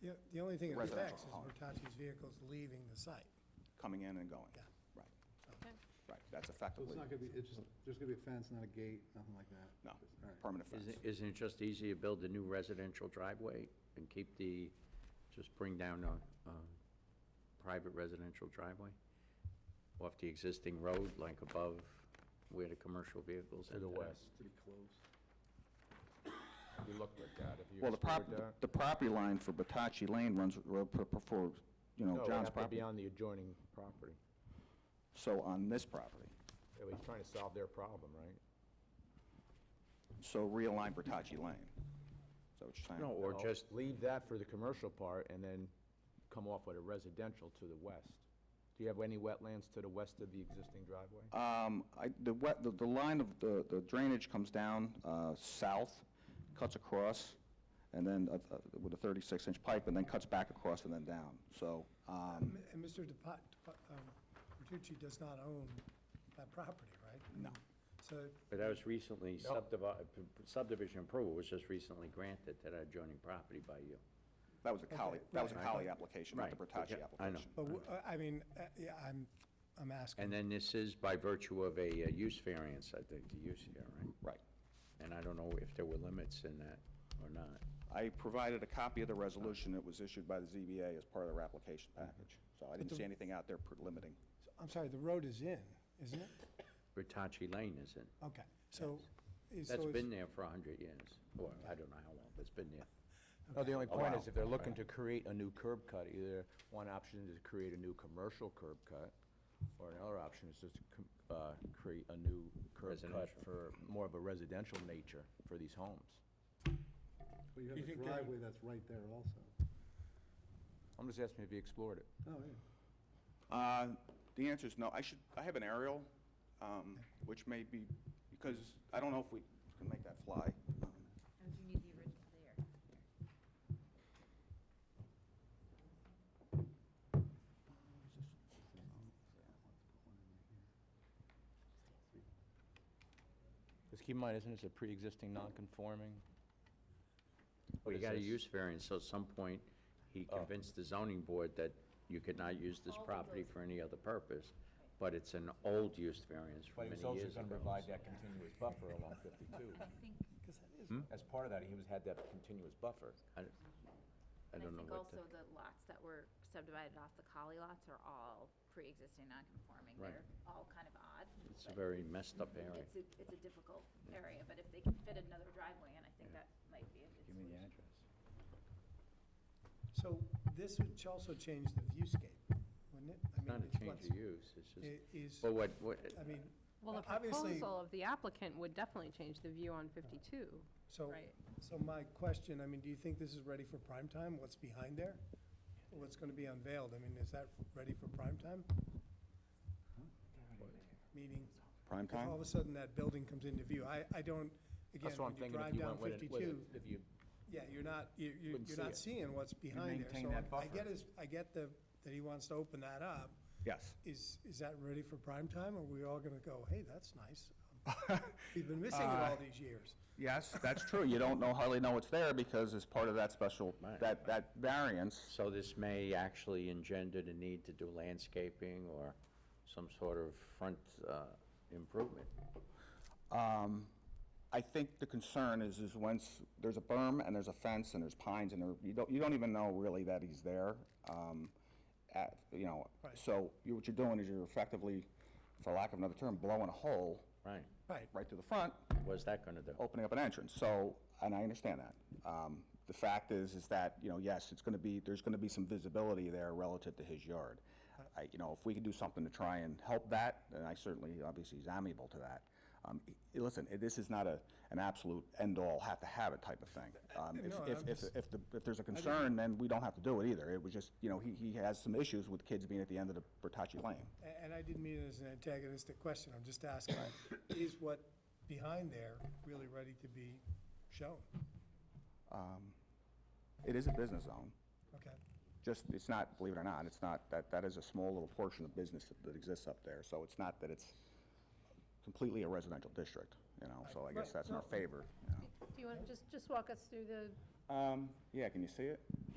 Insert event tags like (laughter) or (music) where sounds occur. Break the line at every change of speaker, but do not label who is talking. The, the only thing it
Residential
affects is
home.
Bertocci's vehicles leaving the site.
coming in and going.
Yeah.
Right,
Okay.
right, that's
So it's
effectively,
not gonna be, it's just, there's gonna be a fence, not a gate, nothing like that?
no,
All right.
permanent fence.
Isn't isn't it just easier to build a new residential driveway and keep the, just bring down a um, private residential driveway? Off the existing road, like above where the commercial vehicles
to
enter?
the west.
Pretty close.
If You looked at that, if you
Well, the
explored
prop,
that.
the property line for Batachi Lane runs, r- p- p- for, you know,
No, it'd
John's
have to be
property.
on the adjoining property.
So on this property.
At least trying to solve their problem, right?
So realign Bertocci Lane. Is that what you're saying?
No, or
No,
just,
Leave that for the commercial part and then come off with a residential to the west. Do you have any wetlands to the west of the existing driveway?
Um, I, the wet, the, the line of, the, the drainage comes down, uh, south, cuts across, and then, uh, uh, with a thirty-six inch pipe, and then cuts back across and then down, so, um,
Mm-hmm.
M- And Mr. Depa- Depa- um, Bertucci does not own that property, right? No. So,
but that was recently subdivi- subdivision approval was just recently granted to that adjoining property by you.
that was a collie, that was a
right.
collie application, not the
Right,
Bertocci
okay, I know.
application.
but, w- I mean, uh, yeah, I'm, I'm asking.
And then this is by virtue of a uh, use variance, I think, the use here, right?
Right.
And I don't know if there were limits in that or not.
I provided a copy of the resolution that was issued by the ZBA as part of their application package, so I didn't see anything out there per- limiting.
I'm sorry, the road is in, isn't it?
Bertocci Lane isn't.
Okay, so. is- so
That's
it's-
been there for 100 years, or I don't know how long, but it's been there.
No, the only
Oh,
point
wow.
is if they're looking to create a new curb cut, either one option is to create a new commercial curb cut, or another option is just to com- uh, create a new curb cut
Residential.
for more of a residential nature for these homes.
But you have
You
a
think they're-
driveway that's right there also.
I'm just asking if you explored it.
Oh, yeah.
Uh, The answer is no. I should, I have an aerial, um, which may be, because I don't know if we can make that fly. Um,
And you need the original there.
Just keep in mind, isn't this a pre-existing non-conforming?
Well,
What
you
is
got a
this?
use variance, so at some point, he convinced the zoning board that you could not use this property for any other purpose, but it's an old use variance from
But he
many
was
years ago.
also going to provide that continuous buffer along 52.
I think,
Hmm?
As part of that, he was, had that continuous buffer.
I don't- I
I
don't know
think
what
also
the,
the lots that were subdivided off the collie lots are all pre-existing non-conforming.
Right.
They're all kind of odd.
it's a
but
very messed up area.
It's a, it's a difficult area, but if they can fit another driveway in, I think that might be a good solution.
So this would ch- also change the viewscape, wouldn't it? I
It's not
mean,
a change of
what's-
use, it's
it
just,
Is,
well, what, what,
I mean,
Well, the
obviously,
proposal of the applicant would definitely change the view on 52.
so,
right.
so my question, I mean, do you think this is ready for prime time? What's behind there? What's going to be unveiled? I mean, is that ready for prime time? Meaning,
Prime
if all of
time?
a sudden that building comes into view, I, I don't, again,
That's what I'm
when you
thinking, if
drive
you
down
went with it- with it,
52,
if you
yeah, you're not, you- you,
Wouldn't
you're
see
not
it.
seeing what's behind there.
maintain
So
that
I- I
buffer.
get his, I get the, that he wants to open that up.
Yes.
Is, is that ready for prime time? Are we all going to go, hey, that's nice.
(laughs)
We've been missing it
Uh,
all these years.
Yes, (laughs) that's true. You don't know, hardly know it's there because it's part of that special, that, that variance.
so this may actually engender the need to do landscaping or some sort of front uh, improvement.
Um, I think the concern is, is once, there's a berm and there's a fence and there's pines and there, you don't, you don't even know really that he's there. um, At, you know,
Right.
so you- what you're doing is you're effectively, for lack of another term, blowing a hole
Right,
Right.
right through the front,
what's that going to do?
opening up an entrance, so, and I understand that. Um, The fact is, is that, you know, yes, it's going to be, there's going to be some visibility there relative to his yard. I, you know, if we can do something to try and help that, then I certainly, obviously, is amenable to that. Um, i- Listen, i- this is not a, an absolute end-all, have-to-have it type of thing. Um, If,
Eh, No,
if,
I'm
if, if the- if there's a concern, then we don't have to do it either. It was just, you know, he, he has some issues with kids being at the end of the Bertocci Lane.
A- And I didn't mean it as an antagonistic question, I'm just asking, is what behind there really ready to be shown?
It is a business zone.
Okay,
just, it's not, believe it or not, it's not, that, that is a small little portion of business that- that exists up there, so it's not that it's completely a residential district, you know, so I guess
Right.
that's in our favor. you know.
Do you want to just, just walk us through the,
Um, yeah, can you see it?